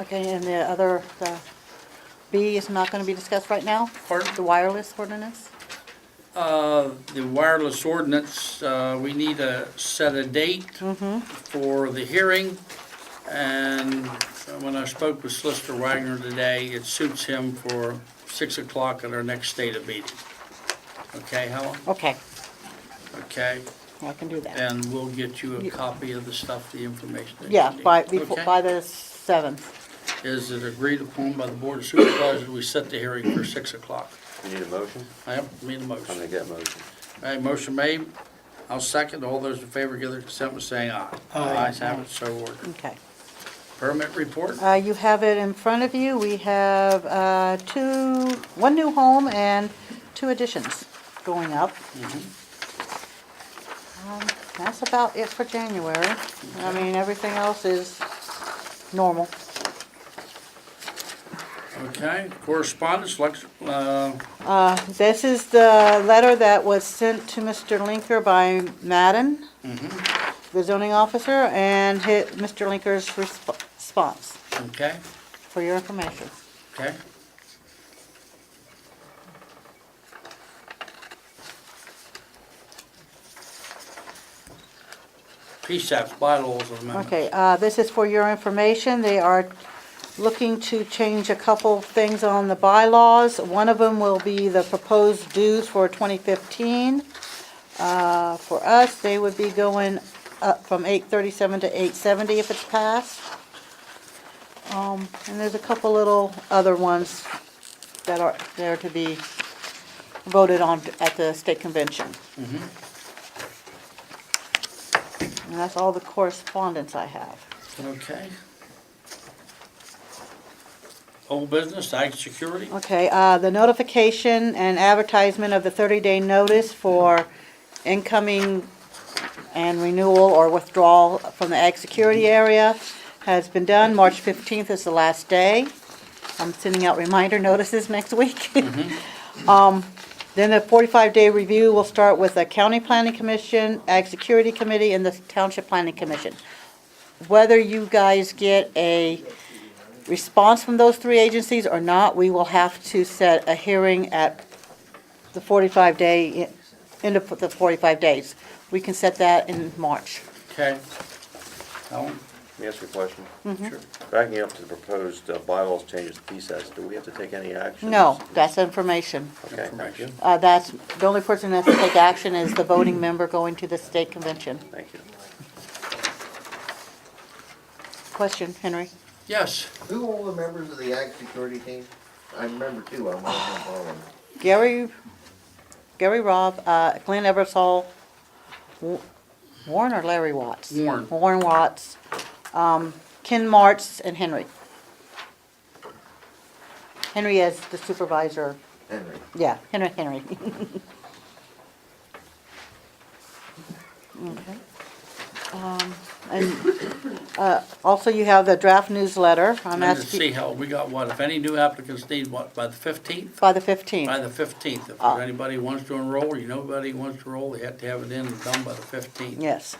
Okay, and the other, the B is not gonna be discussed right now? Pardon? The wireless ordinance? Uh, the wireless ordinance, uh, we need to set a date Mm-hmm. for the hearing. And when I spoke with Solicitor Wagner today, it suits him for six o'clock at our next state of meeting. Okay, Helen? Okay, Okay, I can do that. and we'll get you a copy of the stuff, the information that you Yeah, need. by, before, Okay? by the seventh. Is it agreed upon by the Board of Supervisors, we set the hearing for six o'clock? You need a motion? I have, need a I'm motion. gonna get motion. Hey, motion made, I'll second, all those in favor give their consent by saying aye. Aye. Ayes have it, so ordered. Okay. Permit report, Uh, you have it in front of you. We have, uh, two, one new home and two additions going up. Mm-hmm. Um, That's about it for January. I mean, everything else is normal. okay, correspondence, Lex, uh, Uh, This is the letter that was sent to Mr. Linker by Madden, the zoning officer, and hi- Mr. Linker's resp- response, okay, for your information. okay. PSAP, bylaws amendment. Okay, uh, this is for your information. They are looking to change a couple things on the bylaws. One of them will be the proposed dues for 2015. Uh, For us, they would be going up from 837 to 870 if it's passed. Um, And there's a couple little other ones that are there to be voted on at the state convention. And that's all the correspondence I have. Okay. Old business, ag security, Okay, uh, the notification and advertisement of the 30-day notice for incoming and renewal or withdrawal from the ag security area has been done. March 15th is the last day. I'm sending out reminder notices next week. Um, Then the 45-day review will start with the County Planning Commission, Ag Security Committee, and the Township Planning Commission. Whether you guys get a response from those three agencies or not, we will have to set a hearing at the 45-day, end of the 45 days. We can set that in March. okay. Helen? Let me ask you a question. Sure. Backing up to the proposed uh, bylaws changes to PSAS, do we have to take any action? No, that's information. Okay, thank you, Information. Uh, That's, the only person that has to take action is the voting member going to the state convention. thank you. Question, Henry? Yes, Who all the members of the ag security team? I remember two, I'm one of them, all of them. Gary, Gary Robb, uh, Glenn Eversole, Wa- Warren or Larry Watts? Warren. Warren Watts, um, Ken Martz, and Henry. Henry is the supervisor, Henry. yeah, Henry, Henry. Okay. Um, And, uh, also you have the draft newsletter. I'm and to see asking, how, we got what, if any new applicants need what, by the fifteenth? by the 15th. By the fifteenth, if Ah. anybody wants to enroll, you know anybody wants to enroll, they have to have it in and done by the fifteenth. Yes.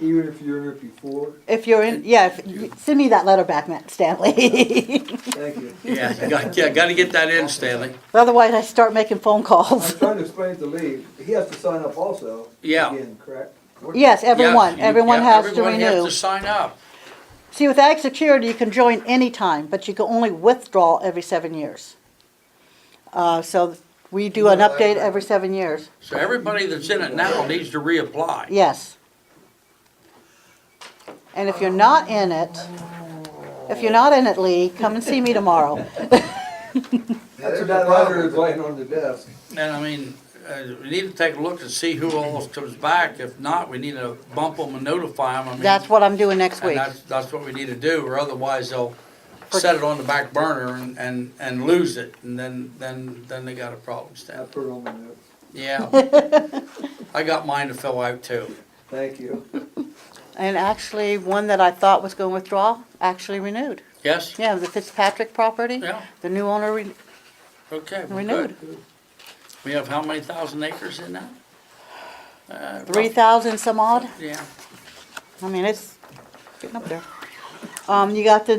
Even if you're in it before, If you're in, yeah, if, you- send me that letter back, Matt Stanley. thank you. Yeah, you got, yeah, gotta get that in, Stanley, Otherwise, I start making phone I'm calls. trying to explain to Lee, he has to sign up also. yeah. Oh. Again, correct? Yes, everyone, Yeah, you- everyone yeah, has to Everyone has renew. to sign up, See, with ag security, you can join anytime, but you can only withdraw every seven years. Uh, so we do an Yeah, I- update every seven years, so everybody that's in it now needs to reapply. yes. And if you're not in it, if you're not in it, Lee, come and see me tomorrow. Yeah, That's there's what a that problem letter is with- laying on the desk. And I mean, uh, we need to take a look and see who else comes back. If not, we need to bump them and notify them. I mean, That's what I'm doing next and week. that's, that's what we need to do, or otherwise they'll set it on the back burner and, and, and lose it, and then, then, then they got a problem, I Stan. put it on my notes. Yeah. I got mine to fill out too. Thank you. And actually, one that I thought was gonna withdraw, actually renewed. Yes? Yeah, the Fitzpatrick property. Yeah, The new owner re- okay. we're renewed. good. We have how many thousand acres in that? Uh, Three thousand some odd? Yeah. I mean, it's getting up there. Um, you got the